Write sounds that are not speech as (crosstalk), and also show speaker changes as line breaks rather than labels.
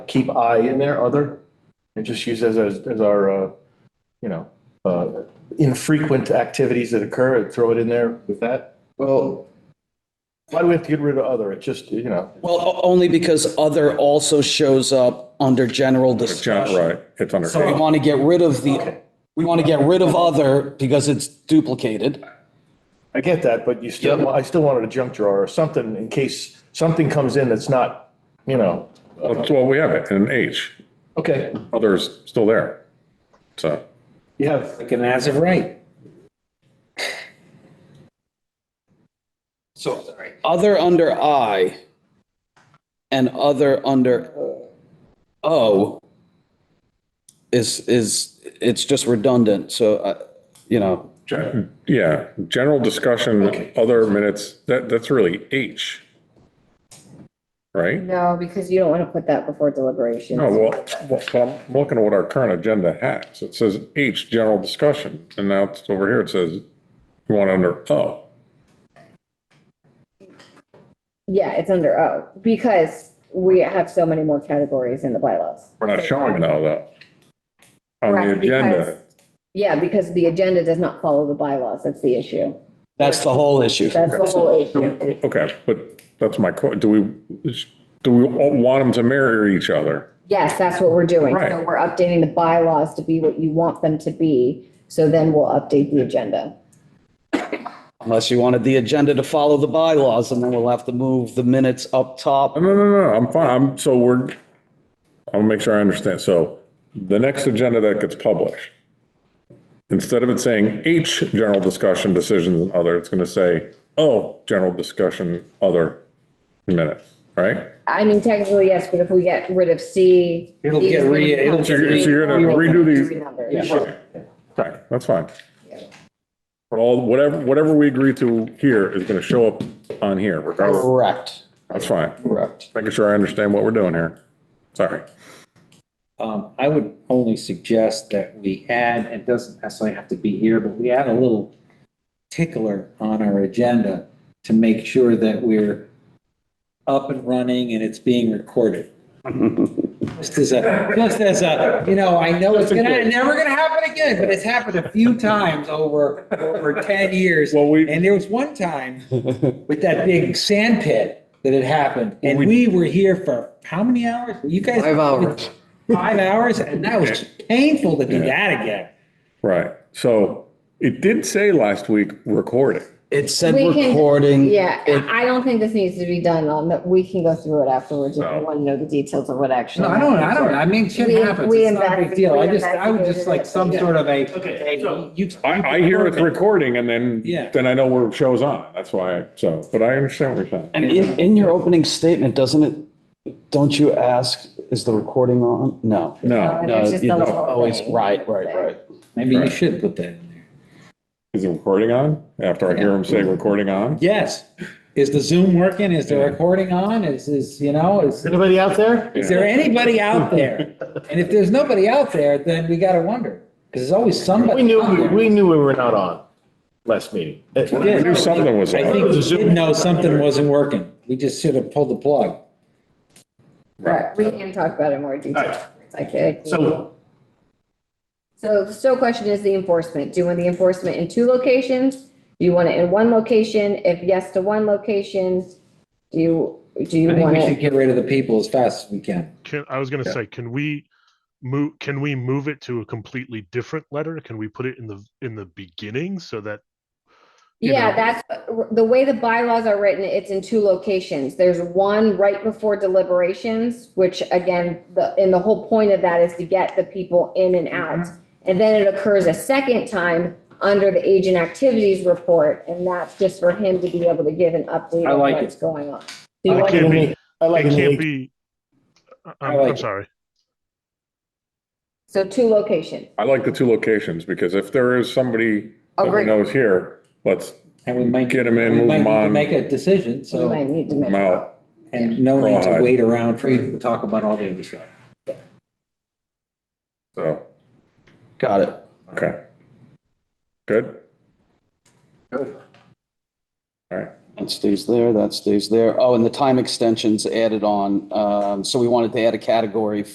keep I in there, other, and just use as, as as our, uh, you know, uh, infrequent activities that occur, throw it in there with that.
Well,
Why do we have to get rid of other? It just, you know,
Well, o- only because other also shows up under general
John,
discussion.
right, it's under.
So we want to get rid of the, we want to get rid of other because it's duplicated.
I get that, but you still, I still wanted a junk drawer or something in case something comes in that's not, you know,
Well, we have it in H,
okay,
others still there. So,
you have,
Like an as of right. So,
Other under I and other under O is, is, it's just redundant. So, uh, you know,
gen- yeah, general discussion, other minutes, that, that's really H. Right?
No, because you don't want to put that before deliberations.
No, Oh, well, well, well, I'm looking at what our current agenda has. It says H, general discussion, and now it's over here, it says we want under O.
Yeah, it's under O, because we have so many more categories in the bylaws.
We're not showing now though. On the
Correct, because-
agenda,
Yeah, because the agenda does not follow the bylaws, that's the issue.
that's the whole issue.
That's the whole issue.
okay, but that's my, que- do we, do we all want them to mirror each other?
Yes, that's what we're doing. So
Right.
we're updating the bylaws to be what you want them to be, so then we'll update the agenda.
Unless you wanted the agenda to follow the bylaws and then we'll have to move the minutes up top.
No, no, no, no, I'm fine, I'm, so we're, I'll make sure I understand, so the next agenda that gets published, instead of it saying H, general discussion, decisions and other, it's gonna say O, general discussion, other minutes, right?
I mean, technically, yes, but if we get rid of C.
It'll
D is
get re-
gonna
it'll
come
So
get
you're, so you're gonna redo
three
these,
numbers.
right, right, that's fine. But all, whatever, whatever we agree to here is gonna show up on here, regardless,
Correct,
that's fine,
correct.
making sure I understand what we're doing here, sorry.
um, I would only suggest that we add, and it doesn't necessarily have to be here, but we add a little tickler on our agenda to make sure that we're up and running and it's
(laughs)
being recorded. Just as a, just as a, you know, I know it's gonna, never gonna happen again, but it's happened a few times over, over ten years.
Well, we-
And there was one time with that big sand pit that had happened, and we were here for how many hours? You guys?
Five hours.
Five hours, and that was painful to do that again.
Right. So it did say last week recording.
It said
We can-
recording.
Yeah,
It-
I I don't think this needs to be done on, that. we can go through it afterwards if
No.
you want to know the details of what actually.
No, I don't, I don't, I mean, shit
We-
happens,
we
it's not a big
investi-
deal, I
we
just, I would just like some
investigated
sort of a.
Okay, so-
You-
I, I hear it's recording and then,
Yeah.
then I know where it shows on. That's why, so, but I understand what you're saying.
And in, in your opening statement, doesn't it, don't you ask, is the recording on? No.
No,
No,
No,
it's just
you
a
don't
little
always,
thing.
right, right, right.
Maybe you should put that in there.
is it recording on? After I hear him say recording on?
Yes, is the Zoom working, is the recording on, is, is, you know, is,
anybody out there?
is there anybody out there? And if there's nobody out there, then we gotta wonder, because there's always
We
somebody.
knew,
out
we-
there.
we knew we were not on last meeting.
I knew something was
I
on.
think we did know something wasn't working, we just should have pulled the plug.
Right, we can talk about it in more detail.
Alright.
I think.
So,
So the still question is the enforcement. Do you want the enforcement in two locations? Do you want it in one location? If yes to one location, do you, do you
I think
want
we should
it?
get rid of the people as fast as we can.
Can, I was gonna say, can we move, can we move it to a completely different letter? Can we put it in the, in the beginning so that? you
Yeah,
know-
that's, the way the bylaws are written, it's in two locations. There's one right before deliberations, which again, the, and the whole point of that is to get the people in and out. And then it occurs a second time under the agent activities report, and that's just for him to be able to give an update
I
on
like it.
what's going on. Do you
I
want-
can't be-
like, I like,
It can't
it.
be, I-
I
I'm,
like
I'm
it.
sorry.
So two locations.
I like the two locations because if there is somebody that we
Agree.
know is here, let's
And we might.
Get 'em in,
we
move
might
'em
need to
on.
Make a decision,
So we
so,
might need to
move
make.
'em out.
and no need to
Rawhide.
wait around for you to talk about all the other stuff.
So,
Got it.
okay. Good? Good. All right.
That stays there, that stays there. Oh, and the time extensions added on. Um, So we wanted to add a category